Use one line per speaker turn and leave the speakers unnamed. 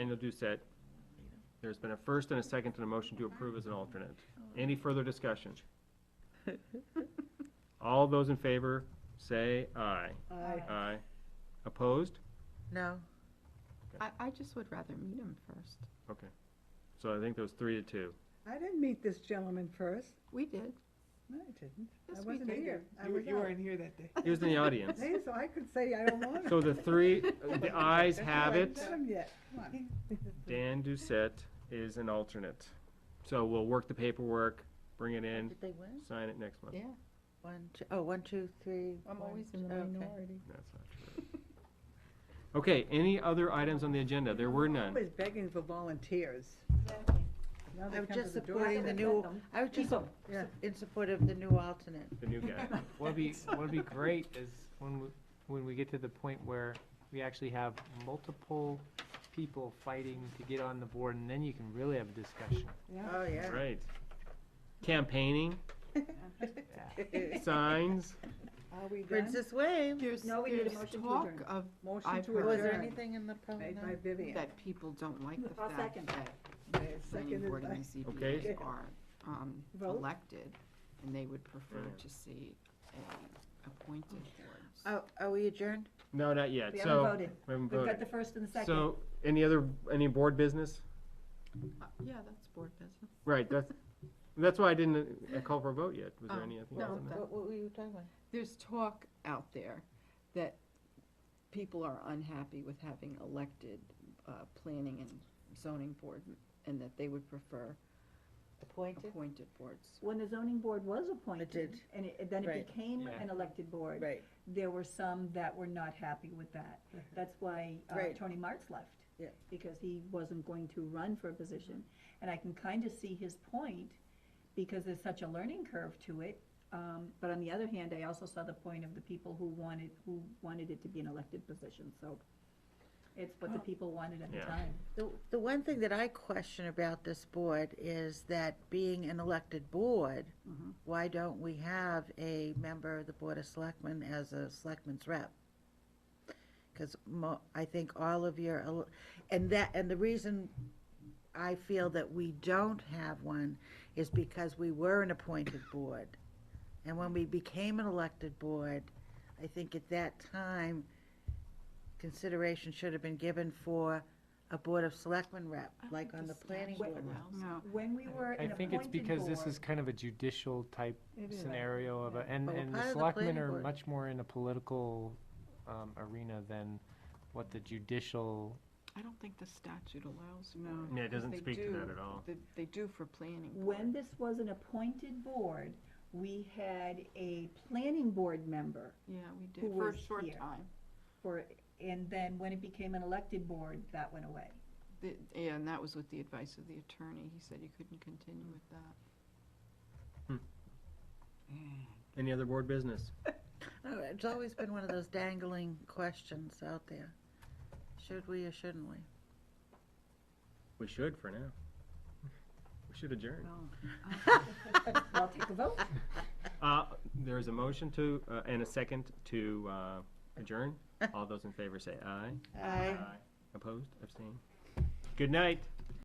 Daniel Doucette. There's been a first and a second and a motion to approve as an alternate. Any further discussion? All those in favor, say aye.
Aye.
Aye. Opposed?
No.
I, I just would rather meet him first.
Okay. So I think there was three to two.
I didn't meet this gentleman first.
We did.
No, I didn't.
Yes,
I
we
wasn't
did.
here. I
You were-
was
you
out.
weren't here that day.
He was in the audience.
Hey, so I could say I don't want it.
So the three, the ayes have
I
it.
haven't met him yet. Come on.
Dan Doucette is an alternate. So we'll work the paperwork, bring it in,
Did they win?
sign it next month.
Yeah,
One, two, oh, one, two, three.
I'm
one,
always
two-
in the
okay.
minority.
That's not true. Okay, any other items on the agenda? There were none.
Always begging for volunteers. Now they
I'm
come to
just
the door.
supporting the new, I was just
Yeah.
in support of the new alternate.
The new guy.
What'd be, what'd be great is when we, when we get to the point where we actually have multiple people fighting to get on the board, and then you can really have a discussion.
Oh, yeah.
Right. Campaigning, signs,
Are we done?
Princess Wave.
There's,
No, we need a
there's
motion to
talk
adjourn.
of,
Motion
I've
to
heard-
Was there
Adjourn.
adjourn.
anything in the program?
Made by Vivian.
that people don't like the
I'll
fact
second. uh,
that
Okay,
planning
seconded
board
by-
and the
Okay.
ZBA are, um,
Vote.
elected, and they would prefer
Yeah.
to see a appointed
Uh,
board.
Oh, are we adjourned?
no, not yet,
We haven't
so.
voted.
We haven't
We've got
voted.
the first and the second.
So, any other, any board business?
Uh, Yeah, that's board business.
Right, that's, that's why I didn't uh, call for a vote yet. Was there
Um,
any? I think
no,
it was on
but-
that.
What, what were you talking about?
There's talk out there that people are unhappy with having elected, uh, planning and zoning board, and that they would prefer
Appointed?
appointed boards.
When the zoning board was appointed,
did.
and it, then
Right.
it became
Yeah.
an elected board.
Right,
There were some that were not happy with that. That's why uh,
Right.
Tony Martz left.
Yeah.
Because he wasn't going to run for a position. And I can kind of see his point, because there's such a learning curve to it. Um, But on the other hand, I also saw the point of the people who wanted, who wanted it to be an elected position, so it's what the people wanted at the
Yeah.
time.
The, the one thing that I question about this board is that being an elected board, why don't we have a member of the Board of Selectmen as a selectman's rep? Because mo, I think all of your, el- and that, and the reason I feel that we don't have one is because we were an appointed board. And when we became an elected board, I think at that time, consideration should have been given for a Board of Selectmen rep, like on the planning board.
No.
When we were
I
an appointed board.
think it's because this is kind of a judicial type
It is.
scenario of, a- and,
But we're
and
part
the
of the
selectmen
planning
are
board.
much more in a political, um, arena than what the judicial,
I don't think the statute allows for
Yeah, it
because
doesn't
they
speak to that
do-
at all.
They, they do for planning.
When this was an appointed board, we had a planning board member
Yeah, we
Who
did, for a
was
short
here?
time.
for, and then when it became an elected board, that went away.
The- And that was with the advice of the attorney. He said you couldn't continue with that.
Any other board business?
No, It's always been one of those dangling questions out there. Should we or shouldn't we?
We should for now. We should adjourn.
I'll take a vote.
Uh, there is a motion to, uh, and a second to, uh, adjourn. All those in favor say aye.
Aye.
Opposed, abstained? Good night.